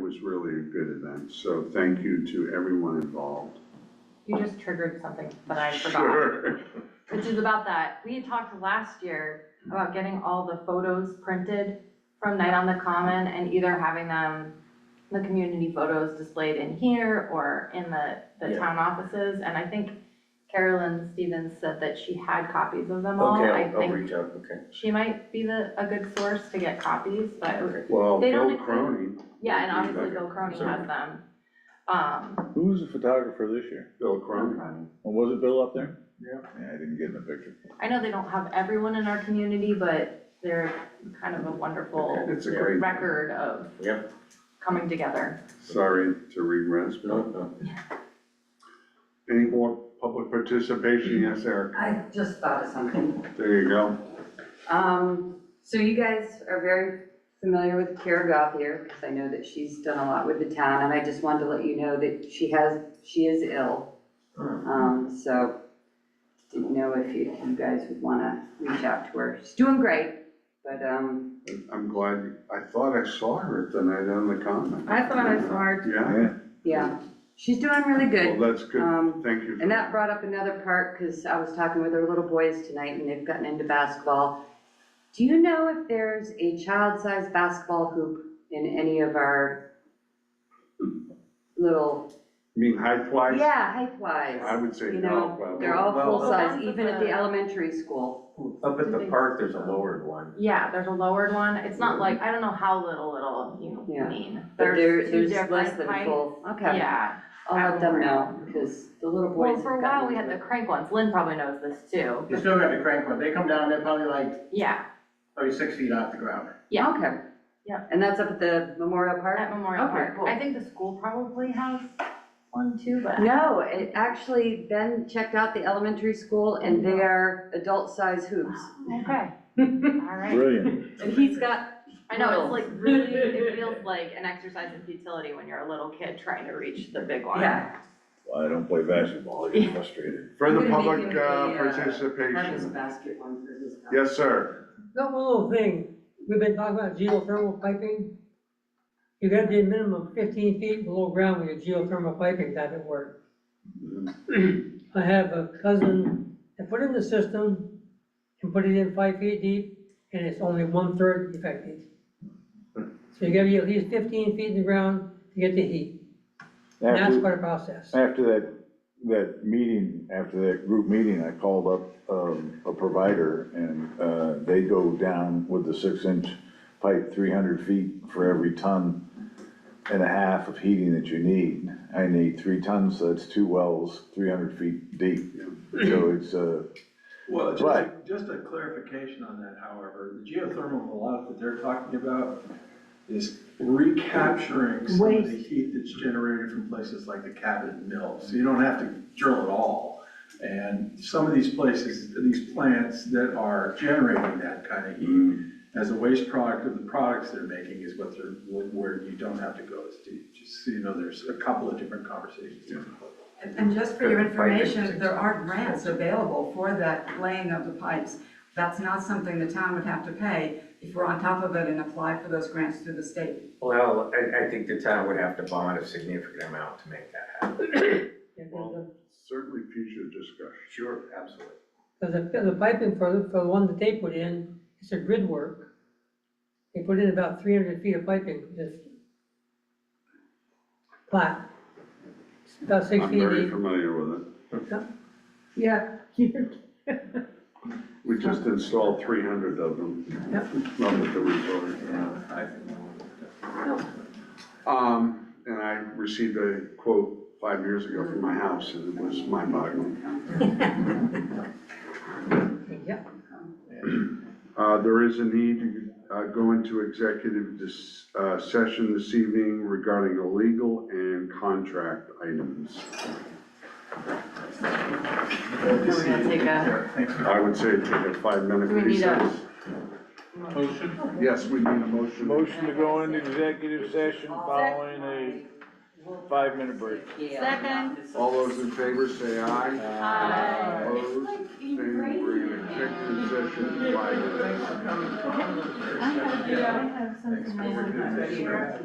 was really a good event, so thank you to everyone involved. You just triggered something that I forgot, Sure. which is about that. We had talked last year about getting all the photos printed from Night on the Common and either having them, the community photos displayed in here or in the, the Yeah. town offices. And I think Carolyn Stevens said that she had copies of them all. Okay, I I'll, I'll think reach out, okay. she might be the, a good source to get copies, but, it was- Well, They don't Bill include- Cronin, yeah, and Okay, obviously okay. Bill Cronin Sorry. has them. Um, Who was the photographer this year? Bill Cronin, And was it Bill up there? Yeah. Yeah, I didn't get in the picture. I know they don't have everyone in our community, but they're kind of a wonderful Okay. it's a great, record of Yep, coming together. sorry to regress, no, but no. any more public participation? Yes, Eric, I just thought of something. there you go. Um, so you guys are very familiar with Kara Goff here, because I know that she's done a lot with the town, and I just wanted to let you know that she has, she is ill. Um, so didn't know if you, you guys would wanna reach out to her. She's doing great, but, um, I'm glad, I thought I saw her at the night on the common. I thought I saw her. Yeah, yeah, she's doing really well, good. that's good, Um, thank you. for And that brought up another part, because I was talking with our little boys tonight, and they've gotten into basketball. Do you know if there's a child-sized basketball hoop in any of our little, You mean height-wise? yeah, I height-wise? would say You no, know, well, uh, they're all Well- full-size, even at the Uh, elementary school. Up at the park, there's a lowered one. Yeah, there's a lowered one. It's not like, I don't know how little, little you Yeah. mean. But there, two there's less different than heights. full, okay. Yeah. I'll let them know, Outdoor. because the little boys Well, have for a gotten while, we had into the it. crank ones. Lynn probably knows this too. You still got the crank one, they come down, they're probably like, Yeah, probably six feet off the ground. yeah. Okay. Yeah. And that's up at the Memorial Park? at Memorial Okay, Park. cool. I think the school probably has one too, but. No, it actually, Ben checked out the elementary school and they are adult-size hoops. Okay, all right. Brilliant. And he's got, I know, it's like really, it feels like an exercise in futility when you're a little kid trying to reach the big one. yeah, Well, I don't play basketball, I get frustrated. Further I'm gonna public make him uh, a, uh, participation. basket one for his. Yes, sir. One little thing, we've been talking about geothermal piping. You gotta be a minimum fifteen feet below ground with your geothermal piping type of work. Mm-hmm. I have a cousin that put in the system and put it in five feet deep, and it's only one-third effective. So you gotta be at least fifteen feet in the ground to get the heat, and that's After, quite a process. after that, that meeting, after that group meeting, I called up, um, a provider and, uh, they go down with the six inch pipe, three hundred feet for every ton and a half of heating that you need. I need three tons, so that's two wells, three hundred feet deep. So it's, uh, Well, just, a- Right. just a clarification on that, however, the geothermal lot that they're talking about is recapturing some of the heat that's generated from places like the Cabot Mill, so you don't have to drill at all. And some of these places, these plants that are generating that kind of heat as a waste product of the products they're making is what they're, where you don't have to go as deep. Just so you know, there's a couple of different conversations. And- And just for your information, there are grants available for that laying of the pipes. That's not something the town would have to pay if we're on top of it and apply for those grants through the state. Well, I, I think the town would have to bond a significant amount to make that happen. Certainly future discussion. Sure, absolutely. Because the, 'cause the piping for, the- for the one that they put in, it's a grid work. They put in about three hundred feet of piping, just flat. It's About six I'm feet very deep. familiar with it. Yeah. We just installed three hundred of them. Not with the resort. I Um, and I received a quote five years ago from my house, and it was mind-boggling. Yeah, Uh, there is a need to, uh, go into executive dis, uh, session this evening regarding illegal and contract items. We're gonna take a, Thanks for I would say take a five-minute Do we need a- recess. Yes, we need a motion. motion to go into executive session following a five-minute break. Second. All those in favor say aye. Aye. Opposed, abstained, we're in executive session, five minutes. coming. I have, yeah, I have Thanks for working on that.